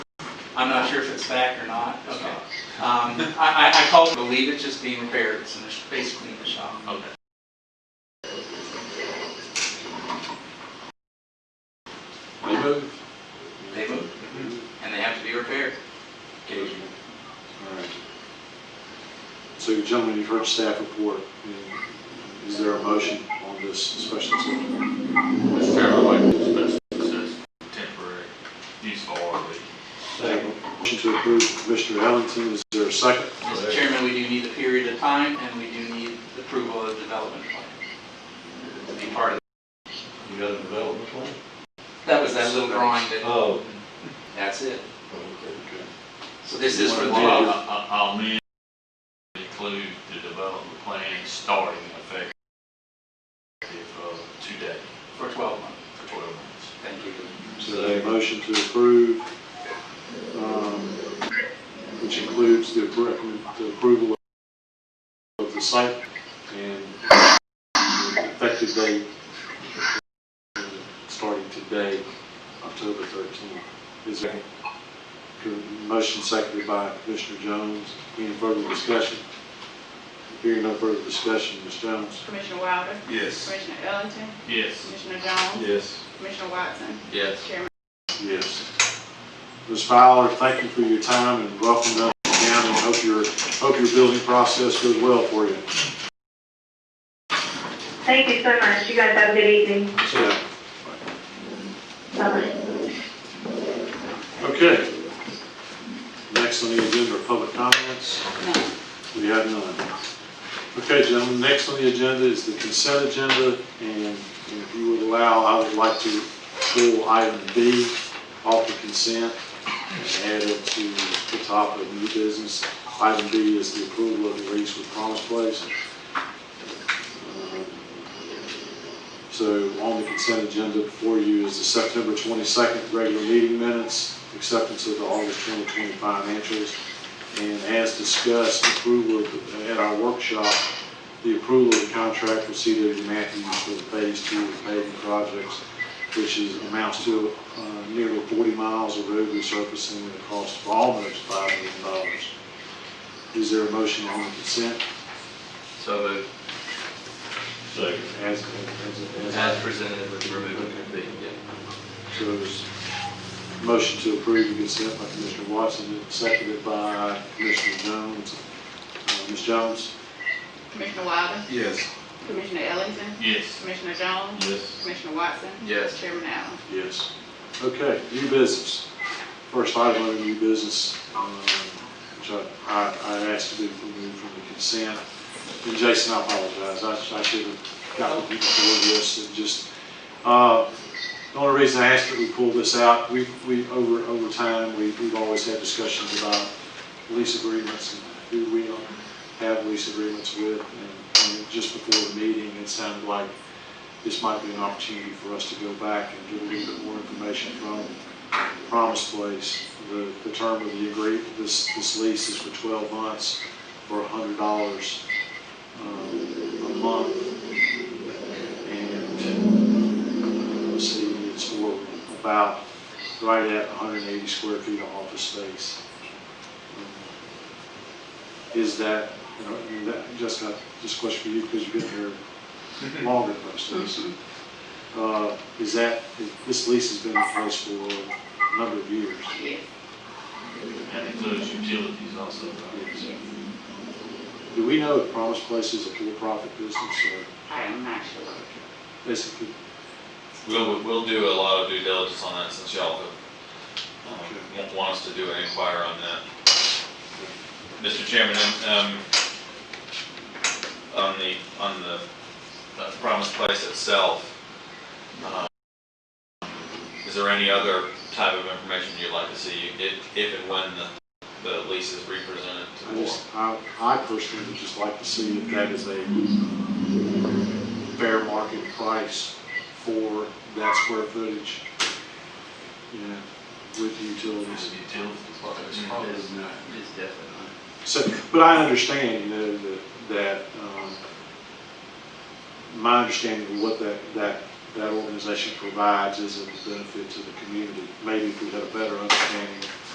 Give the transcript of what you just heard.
I'm not sure if it's back or not. It's Okay. Um, I, I, I call, believe it's just being repaired, it's in the, sh- basically in the shop. Okay. They moved. They move, and they have to be repaired. Occasionally. All right. So gentlemen, you've heard staff report. And Is there a motion on this special exception? Mr. Chairman, I'd like to specify this is temporary use for a week. Motion to approve Commissioner Ellington, is there a second? Mr. Chairman, we do need a period of time, and we do need approval of the development plan to be part of. You got a development plan? That was that little drawing that, Oh. that's it. Okay. So this is for the Well, law. I- I- I'll amend, include the development plan starting effective uh, today For 12 months. for 12 months. Thank you. So a motion to approve, um, which includes the appro- the approval of the site and the effective date uh, starting today, October 13th. Is there a motion seconded by Commissioner Jones? Any further discussion? Hearing no further discussion, Ms. Jones? Commissioner Wilder, Yes. Commissioner Ellington, Yes. Commissioner Jones, Yes. Commissioner Watson, Yes. Chairman Yes. Ms. Fowler, thank you for your time and welcome to Upton County. and Hope your, hope your building process goes well for you. Thank you so much. You guys have a good evening. Yeah. Bye-bye. Okay. Next on the agenda are public comments. We have none. Okay, gentlemen, next on the agenda is the consent agenda, and if you would allow, I would like to pull item B off the consent and add it to the top of new business. Item B is the approval of the lease with Promise Place. Um, So on the consent agenda before you is the September 22nd regular meeting minutes, acceptance of the August 2020 financials, and as discussed, approval of- at our workshop, the approval of the contract with CW Matthews for the phase two of paving projects, which is, amounts to uh, nearly 40 miles of road resurfacing at a cost of almost $5 million. Is there a motion on the consent So moved, Second. as, as, as as presented with the removal of the, yeah. So there's a motion to approve the consent by Commissioner Watson, and seconded by Commissioner Jones. Uh, Ms. Jones? Commissioner Wilder, Yes. Commissioner Ellington, Yes. Commissioner Jones, Yes. Commissioner Watson, Yes, Chairman Allen. Yes. Okay, new business. First item on the new business, um, which I, I I asked to be removed from the consent. And Jason, I apologize, I sh- I should have gotten you before this, and just, uh, the only reason I asked that we pull this out, we, we, over, over time, we, we've always had discussions about lease agreements and who we have lease agreements with, and, and just before the meeting, it sounded like this might be an opportunity for us to go back and get a little bit more information from Promise Place. The, the term of the agreement, this, this lease is for 12 months for $100 um, a month. And, let's see, it's for about right at 180 square feet of office space. Um, Is that, you know, and that- Jessica, just a question for you, because you've been here longer than most of us. Uh, Is that, this lease has been in place for a number of years. Yes, That includes utilities also, right? Do we know if Promise Place is a for-profit business or I am not sure. basically? We'll, we'll do a lot of due diligence on that since y'all um, won't want us to do an inquiry on that. Mr. Chairman, um, on the, on the uh, Promise Place itself, um, is there any other type of information you'd like to see if, if and when the, the lease is represented to I the board? just, I, I personally would just like to see if that is a fair market price for that square footage, you know, with the utilities. It's utilities. well, it's Mm-hmm. probably, it's definitely. So, but I understand, you know, that, that, um, my understanding of what that, that, that organization provides is a benefit to the community. Maybe if we had a better understanding